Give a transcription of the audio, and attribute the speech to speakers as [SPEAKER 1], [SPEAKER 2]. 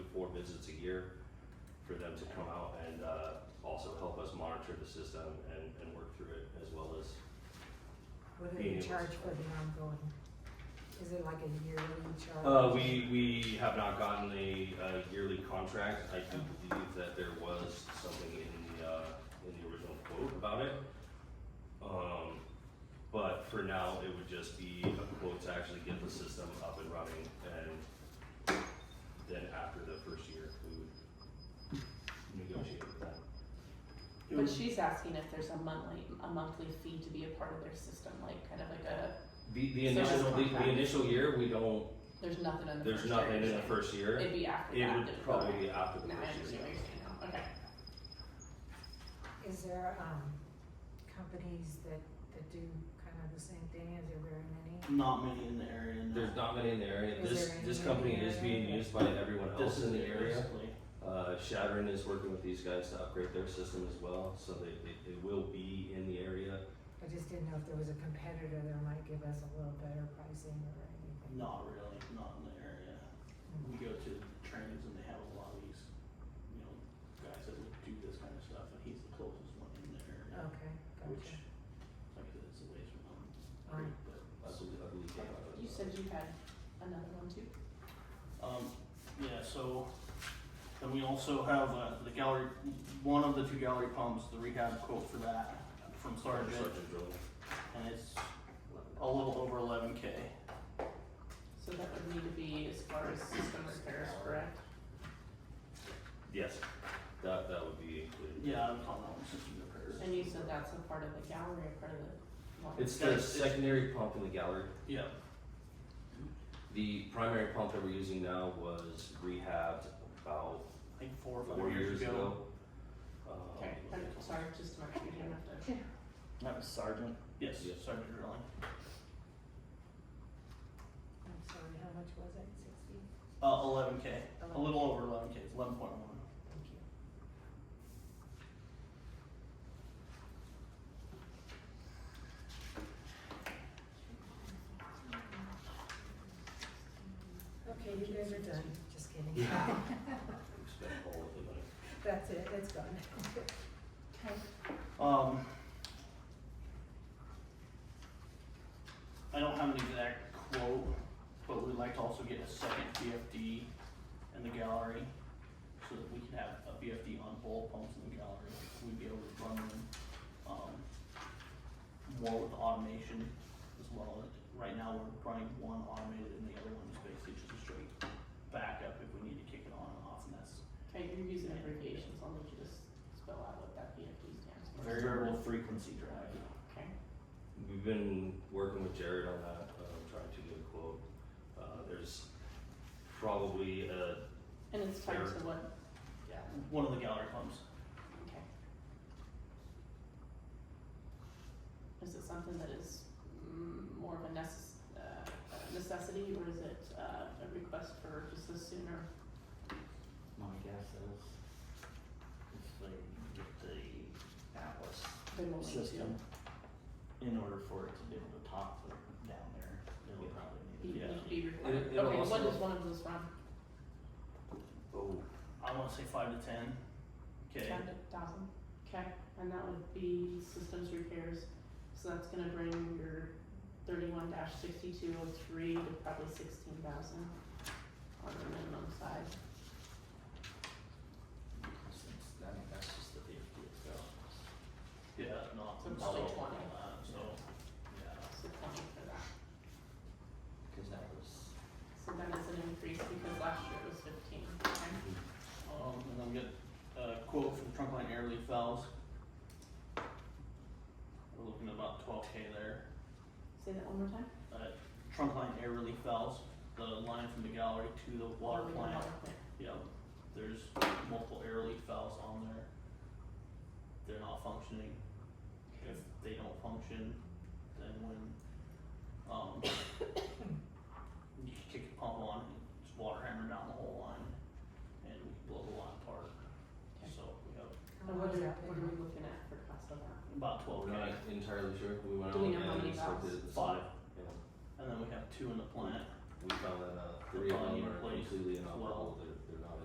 [SPEAKER 1] four visits a year for them to come out and uh, also help us monitor the system and, and work through it as well as
[SPEAKER 2] What do
[SPEAKER 1] Being
[SPEAKER 2] you
[SPEAKER 1] able to
[SPEAKER 2] charge for the ongoing? Is it like a yearly charge?
[SPEAKER 1] Uh, we, we have not gotten a, uh yearly contract. I do believe that there was something in the, uh, in the original quote about it. Um, but for now, it would just be a quote to actually get the system up and running and then after the first year, we would negotiate with them.
[SPEAKER 3] But
[SPEAKER 1] Mm.
[SPEAKER 3] she's asking if there's a monthly, a monthly fee to be a part of their system, like kind of like a,
[SPEAKER 1] The, the
[SPEAKER 3] So it's
[SPEAKER 1] initial, the,
[SPEAKER 3] contract.
[SPEAKER 1] the initial year, we don't,
[SPEAKER 3] there's nothing in the
[SPEAKER 1] there's
[SPEAKER 3] first year,
[SPEAKER 1] nothing
[SPEAKER 3] you're
[SPEAKER 1] in the
[SPEAKER 3] saying.
[SPEAKER 1] first year.
[SPEAKER 3] It'd be after
[SPEAKER 1] It
[SPEAKER 3] that.
[SPEAKER 1] would
[SPEAKER 3] that it
[SPEAKER 1] probably
[SPEAKER 3] would-
[SPEAKER 1] be after the
[SPEAKER 3] Now I
[SPEAKER 1] first
[SPEAKER 3] understand
[SPEAKER 1] year.
[SPEAKER 3] what you're saying now, okay.
[SPEAKER 2] Is there, um, companies that, that do kind of the same thing? Is there very many?
[SPEAKER 4] Not many in the area. No.
[SPEAKER 1] There's not many in the area.
[SPEAKER 2] Is
[SPEAKER 1] This
[SPEAKER 2] there
[SPEAKER 1] this
[SPEAKER 2] any
[SPEAKER 1] company
[SPEAKER 2] in the
[SPEAKER 1] is being
[SPEAKER 2] area?
[SPEAKER 1] used by everyone
[SPEAKER 4] This
[SPEAKER 1] else
[SPEAKER 4] is
[SPEAKER 1] in the area.
[SPEAKER 4] basically.
[SPEAKER 1] Uh, Shadron is working with these guys to upgrade their system as well, so they, they, they will be in the area.
[SPEAKER 2] I just didn't know if there was a competitor that might give us a little better pricing or anything. Mm-hmm.
[SPEAKER 4] Not really. Not in the area. We go to trainings and they have a lot of these, you know, guys that would do this kind of stuff, and he's the closest one in the area.
[SPEAKER 3] Oh,
[SPEAKER 2] Okay,
[SPEAKER 4] Which,
[SPEAKER 2] gotcha.
[SPEAKER 4] like I said, it's a ways from home.
[SPEAKER 2] Um,
[SPEAKER 4] Great, but
[SPEAKER 1] I believe, I believe they have a-
[SPEAKER 3] You said you had another one too?
[SPEAKER 4] Um, yeah, so, then we also have, uh, the gallery, one of the two gallery pumps, the rehab quote for that, from Sergeant,
[SPEAKER 1] Sergeant Drilling.
[SPEAKER 4] and it's a little over eleven K.
[SPEAKER 3] So that would need to be as far as system repairs, correct?
[SPEAKER 1] Yes, that, that would be included.
[SPEAKER 4] Yeah, I'm calling that one system repairs.
[SPEAKER 3] And you said that's a part of the gallery, a part of the one?
[SPEAKER 1] It's the
[SPEAKER 4] Guys, it's-
[SPEAKER 1] secondary pump in the gallery.
[SPEAKER 4] Yeah,
[SPEAKER 1] The primary pump that we're using now was rehabbed about
[SPEAKER 4] I think four or
[SPEAKER 1] four
[SPEAKER 4] five
[SPEAKER 1] years
[SPEAKER 4] years ago.
[SPEAKER 1] ago. Um,
[SPEAKER 3] Okay, I'm sorry, just to make sure you don't have to.
[SPEAKER 4] That was Sergeant? Yes,
[SPEAKER 1] Yes.
[SPEAKER 4] Sergeant
[SPEAKER 2] I'm
[SPEAKER 4] Drilling.
[SPEAKER 2] sorry, how much was it? Sixty?
[SPEAKER 4] Uh, eleven K, a
[SPEAKER 2] 11K.
[SPEAKER 4] little over eleven K, it's eleven point one.
[SPEAKER 2] Thank you. Okay, you guys are done, just kidding.
[SPEAKER 1] we spent all of the money.
[SPEAKER 2] That's it, it's gone.
[SPEAKER 3] Okay.
[SPEAKER 4] Um. I don't have an exact quote, but we'd like to also get a second BFD in the gallery, so that we can have a BFD on both pumps in the gallery, we'd be able to run them, um. More with automation as well, right now we're running one automated and the other one is basically just a straight backup if we need to kick it on and off, and that's
[SPEAKER 3] Okay, you're using abbreviations, I'll need you to s- spell out what that BFD stands for.
[SPEAKER 4] variable frequency drive.
[SPEAKER 3] Okay,
[SPEAKER 1] We've been working with Jared on that, uh, trying to get a quote. Uh, there's probably a,
[SPEAKER 3] and it's tied to what,
[SPEAKER 4] One of the gallery pumps.
[SPEAKER 3] okay. Is it something that is mm, more of a necess- uh, a necessity, or is it uh, a request for just a sooner?
[SPEAKER 5] My guess is if they get the Atlas
[SPEAKER 3] Then we'll need to-
[SPEAKER 5] system, in order for it to be able to top the- down there, it'll
[SPEAKER 1] Yeah.
[SPEAKER 5] probably
[SPEAKER 3] You
[SPEAKER 5] need.
[SPEAKER 3] need
[SPEAKER 4] Yeah.
[SPEAKER 3] to be
[SPEAKER 1] It-
[SPEAKER 3] required,
[SPEAKER 1] it'll
[SPEAKER 3] okay, what
[SPEAKER 1] also-
[SPEAKER 3] is one of those from?
[SPEAKER 1] oh,
[SPEAKER 4] I want to say five to ten. Okay.
[SPEAKER 3] Ten thousand, okay, and that would be systems repairs, so that's gonna bring your thirty-one dash sixty-two oh three to probably sixteen thousand on the minimum side.
[SPEAKER 5] Since, I mean, that's just the fifty itself.
[SPEAKER 4] Yeah, not
[SPEAKER 3] So it's
[SPEAKER 4] not
[SPEAKER 3] like
[SPEAKER 4] all
[SPEAKER 3] 20.
[SPEAKER 4] that, So yeah,
[SPEAKER 3] So twenty for that.
[SPEAKER 5] Cause that was,
[SPEAKER 3] So that is an increase because last year it was fifteen, okay?
[SPEAKER 4] um, and I'm get a quote for the trunk line air leaf valves. We're looking at about twelve k there.
[SPEAKER 3] Say that one more time?
[SPEAKER 4] Uh, trunk line air relief valves, the line from the gallery to the water
[SPEAKER 3] Oh,
[SPEAKER 4] plant.
[SPEAKER 3] water plant.
[SPEAKER 4] Yep, there's multiple air leaf valves on there. They're not functioning. If they don't function, then when, um, you kick the pump on, it's water hammer down the whole line and we blow the line apart.
[SPEAKER 3] Okay.
[SPEAKER 4] So we have
[SPEAKER 2] How
[SPEAKER 3] And
[SPEAKER 2] long
[SPEAKER 3] what
[SPEAKER 2] has
[SPEAKER 3] are,
[SPEAKER 2] that
[SPEAKER 3] what
[SPEAKER 2] been
[SPEAKER 3] are
[SPEAKER 2] on?
[SPEAKER 3] we looking at for cost of that?
[SPEAKER 4] about twelve
[SPEAKER 1] we're
[SPEAKER 4] K,
[SPEAKER 1] not entirely sure. We went
[SPEAKER 3] Do
[SPEAKER 1] out
[SPEAKER 3] we know how
[SPEAKER 1] and
[SPEAKER 3] many
[SPEAKER 1] inspected
[SPEAKER 3] valves?
[SPEAKER 1] it.
[SPEAKER 4] five,
[SPEAKER 1] Yeah,
[SPEAKER 4] and then we have two in the plant.
[SPEAKER 1] we found that, uh,
[SPEAKER 4] The
[SPEAKER 1] three of
[SPEAKER 4] bottom
[SPEAKER 1] them are
[SPEAKER 4] place
[SPEAKER 1] completely
[SPEAKER 4] as well.
[SPEAKER 1] inoperable